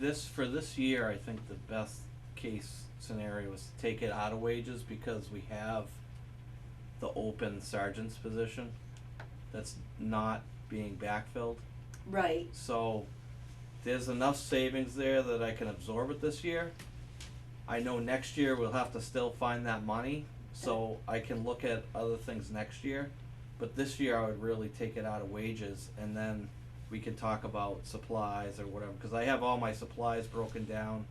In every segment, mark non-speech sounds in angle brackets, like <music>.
this, for this year, I think the best case scenario is to take it out of wages because we have the open sergeant's position that's not being backfilled. Right, So there's enough savings there that I can absorb it this year. I know next year we'll have to still find that money, so I can look at other things next year. But this year I would really take it out of wages and then we can talk about supplies or whatever, cause I have all my supplies broken down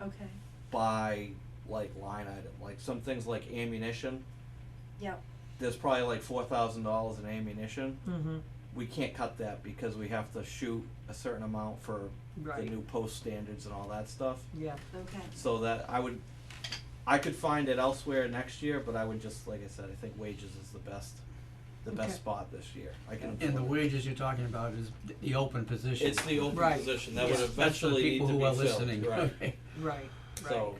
okay, by like line item, like some things like ammunition. yep, There's probably like four thousand dollars in ammunition. Mm-hmm, We can't cut that because we have to shoot a certain amount for the right, new post standards and all that stuff. yeah, okay, So that I would, I could find it elsewhere next year, but I would just, like I said, I think wages is the best, the Okay. best spot this year. I can. And the afford it. wages you're talking about is th- the open position. It's the open Right. position that Yeah, would eventually need to be filled, right? That's for the people who are <laughs> listening, okay. right, right, So,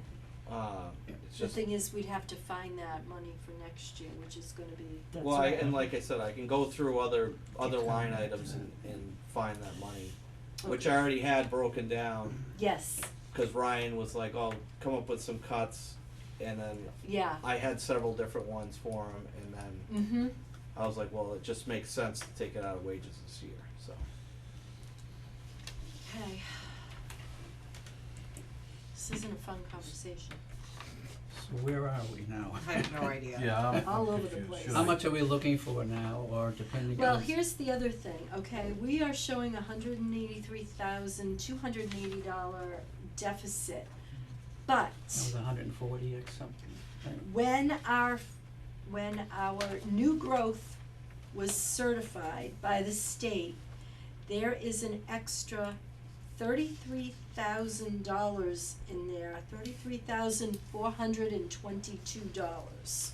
uh, it's the just, thing is, we'd have to find that money for next year, which is gonna be, that's well, I- right. and like I said, I can go through other, other Keep line coming back to items that. and, and find that money, which Okay. I already had broken down, yes, cause Ryan was like, oh, come up with some cuts, and then yeah, I had several different ones for him, and then mm-hmm, I was like, well, it just makes sense to take it out of wages this year, so. okay. This isn't a fun conversation, So where are we now? I have no idea. Yeah. I'm- I'm all over the confused. place. Should <laughs> How much are we looking for now, or depending on? Well, here's the other thing, okay, we are showing a hundred and eighty-three thousand, two hundred and eighty dollar deficit. But That was hundred and forty or something, right? when our, when our new growth was certified by the state, there is an extra thirty-three thousand dollars in there, thirty-three thousand four hundred and twenty-two dollars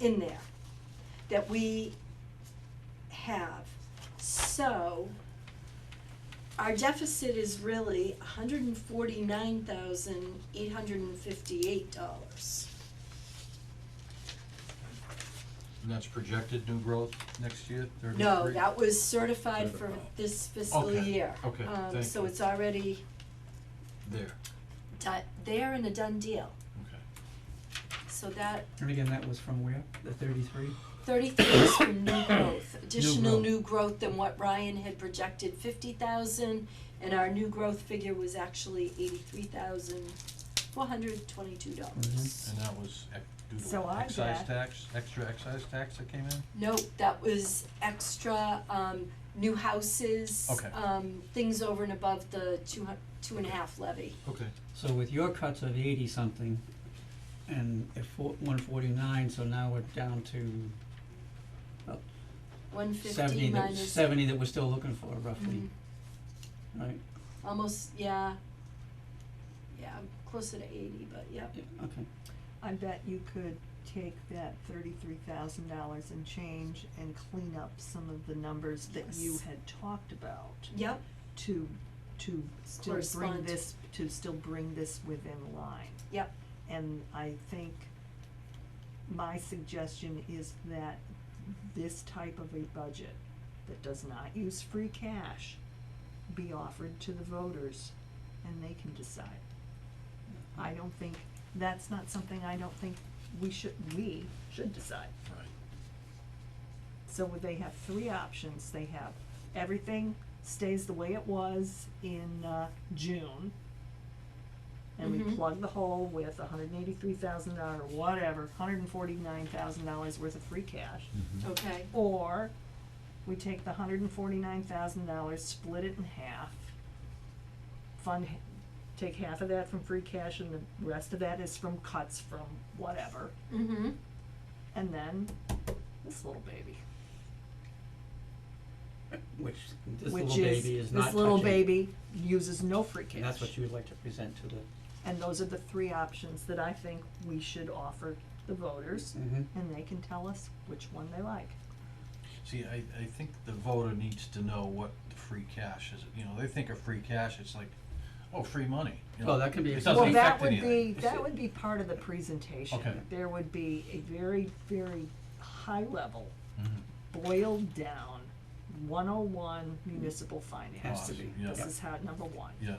in there that we have. So our deficit is really hundred and forty-nine thousand eight hundred and fifty-eight dollars. And that's projected new growth next year, thirty-three? No, that was certified for Certified. this fiscal Okay, year. okay, Um, thank so you. it's already There, di- there and a done deal. okay. So that And again, that was from where, the thirty-three? thirty-three is for new <coughs> growth, additional growth. new growth than what Ryan had projected, fifty thousand, and our new growth figure was actually eighty-three thousand four hundred twenty-two dollars. Mm-hmm. And that was ex- due So to I excise bet- tax, extra excise tax that came in? Nope, that was extra, um, new houses, Okay. um, things over and above the two hu- two and a half levy. Okay. So with your cuts of eighty something, and at four, one forty-nine, so now we're down to One seventy, fifty that, minus. seventy that we're still looking for roughly, Mhm. right? Almost, yeah. Yeah, I'm closer to eighty, but yep. Yeah, okay. I bet you could take that thirty-three thousand dollars and change and clean up some of the numbers that you Yes. had talked about Yep, to, to still bring Correspond. this, to still bring this within line. yep, And I think my suggestion is that this type of a budget that does not use free cash be offered to the voters and they can decide. I don't think, that's not something I don't think we should, we should decide. Right. So they have three options, they have everything stays the way it was in uh June. And we Mhm. plug the hole with hundred and eighty-three thousand dollar, whatever, hundred and forty-nine thousand dollars worth of free cash. Mm-hmm. Mm-hmm. okay, Or we take the hundred and forty-nine thousand dollars, split it in half. Fund, h- take half of that from free cash and the rest of that is from cuts from whatever, mm-hmm, and then this little baby. Which, this which little is, baby is not touching. this little baby uses no free cash. And that's what you would like to present to the, And those are the three options that I think we should offer the voters, Mhm. and they can tell us which one they like. See, I, I think the voter needs to know what the free cash is, you know, they think of free cash, it's like, oh, free money, you know? Well, that can be It Doesn't Well, doesn't that affect would be, anything. that would be part of the presentation. Okay. There would be a very, very high level, Mhm. boiled down, one oh one municipal finance. Has to be, yeah. This is how, number one. Yeah,